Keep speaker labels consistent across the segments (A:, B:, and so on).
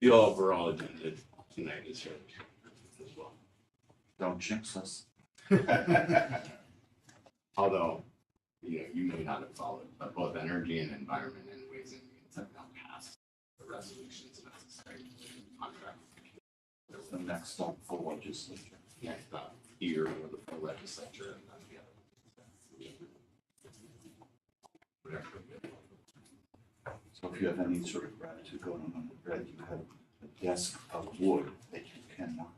A: the overall agenda tonight is yours as well.
B: Don't jinx us.
A: Although, you know, you may not have followed, but both energy and environment and ways and means have now passed the resolutions necessary to contract.
B: It's the next stop for legislature.
A: Next up, here with the full legislature and then the other. Whatever.
B: So if you have any sort of gratitude going on under bread, you have a desk of wood that you can knock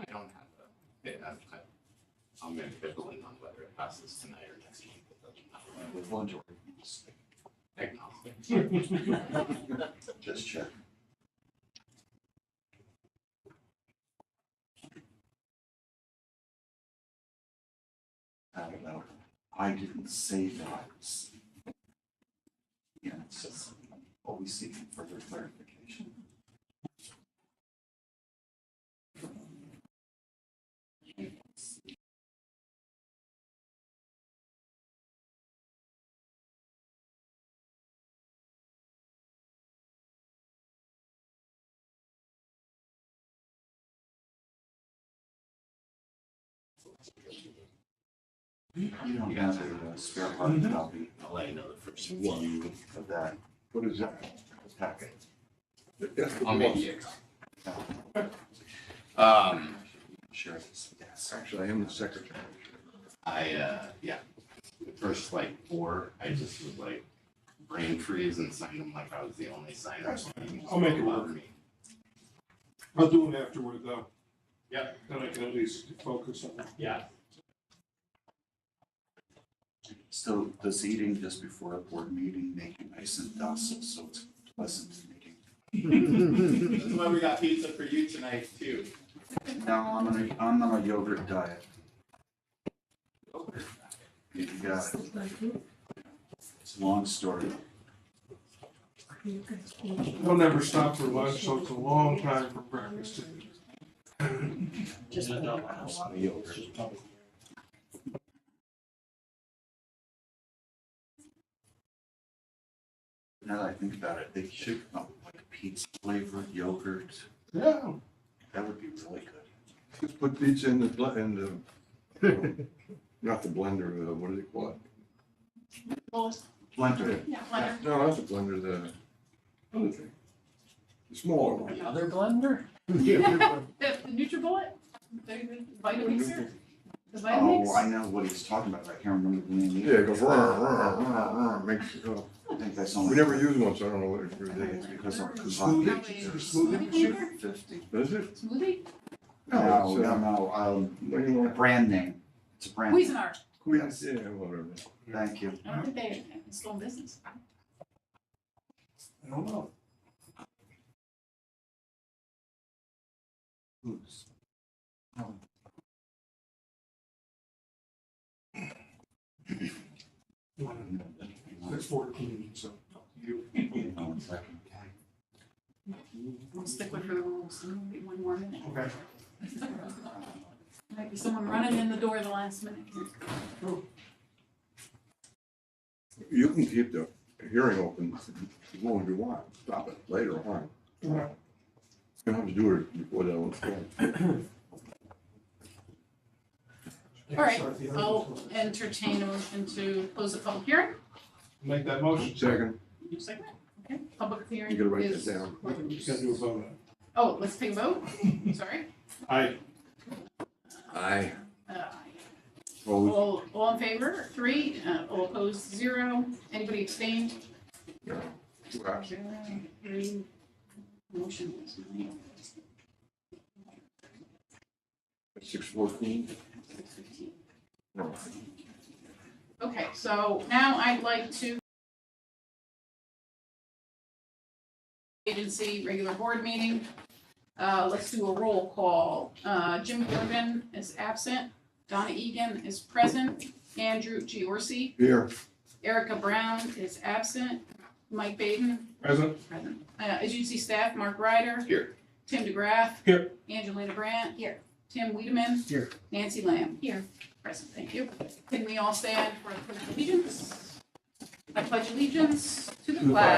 A: I don't have a, I- I- I'm ambivalent on whether it passes tonight or next week. It doesn't matter.
B: on with lingerie.
A: Agnostic.
B: Just check. I don't know. I didn't say that. Yeah, it's just always seeking further clarification. You don't have a uh, spare hard copy
A: I'll let you know the first one.
B: of that
C: What is that?
B: packet.
A: I'll make you a
B: Uh,
A: copy. Um,
B: Share this. Yes.
C: Actually, I am the secretary.
A: I, uh, yeah, the first like four, I just was like brain freeze and signed them like I was the only signer.
D: I'll make it work.
A: Love me.
D: I'll do it afterward though.
A: Yep.
D: Then I can at least focus on it.
A: Yeah.
B: So does eating just before a board meeting make you nice and docile, so it's pleasant to meeting?
A: That's why we got pizza for you tonight too.
B: No, I'm on a, I'm on a yogurt diet. You got it. It's a long story.
D: They'll never stop for lunch, so it's a long time for breakfast.
E: Just.
B: Now that I think about it, they should come up with like pizza flavored yogurt.
D: Yeah.
B: That would be really good.
C: Just put pizza in the, bl- in the, um, not the blender, uh, what do they call it?
B: Blender.
C: No, not the blender, the other thing. The smaller one.
A: Another blender?
C: Yeah.
F: The the NutriBullet, the vitamin syrup,
B: Oh, I
F: the Vitamix.
B: know what he's talking about. but I can't remember the name.
C: Yeah, it goes, rah, rah, rah, rah, makes, it go.
B: I think that's only.
C: we never use one, so I don't know what it
B: I think
C: really
B: it's because our kazaki
D: Smoothie,
B: kids
F: Smoothie
D: smoothie machine.
F: maker?
B: are fifty.
C: is. Is it?
F: Smoothie,
B: No,
C: it's,
B: no,
C: uh,
B: no,
C: What do you
B: um, a
C: want?
B: brand name. It's a brand. name.
F: Cuisinart,
B: Yes.
C: Yeah, whatever.
B: Thank you.
C: Uh-huh.
F: I don't think they, it's still in business.
D: I don't know.
B: Who's?
D: It's fourteen, so.
F: We'll stick with her rules, maybe one more minute.
D: Okay.
F: Might be someone running in the door the last minute.
C: You can keep the hearing open as long as you want, stop it later on. You
D: Right.
C: don't have to do it before that one's done.
F: All right, I'll entertain a motion to close the public hearing.
D: Make that motion.
C: Second,
F: You second it? Okay, public hearing
C: you
F: is.
C: gotta write that down.
D: You just gotta do a vote.
F: Oh, let's take a vote, sorry.
D: Aye.
C: Aye.
F: Uh,
C: Opposed?
F: All, all in favor, three, uh, all opposed, zero. Anybody abstained?
C: No. Two ayes.
F: Zero, three. Motion was made.
C: Six fourteen?
F: Six fifteen.
C: No.
F: Okay, so now I'd like to agency regular board meeting. Uh, let's do a roll call. Uh, Jim Gorman is absent. Donna Egan is present. Andrew Giorgi,
C: Here,
F: Erica Brown is absent. Mike Baden
D: Present.
F: Present. Uh, agency staff, Mark Ryder.
A: Here.
F: Tim DeGraff.
D: Here.
F: Angelina Brandt. Here. Tim Wiedemann.
D: Here.
F: Nancy Lamb. Here. Present, thank you. Can we all stand for the pledge of allegiance? I pledge allegiance to the flag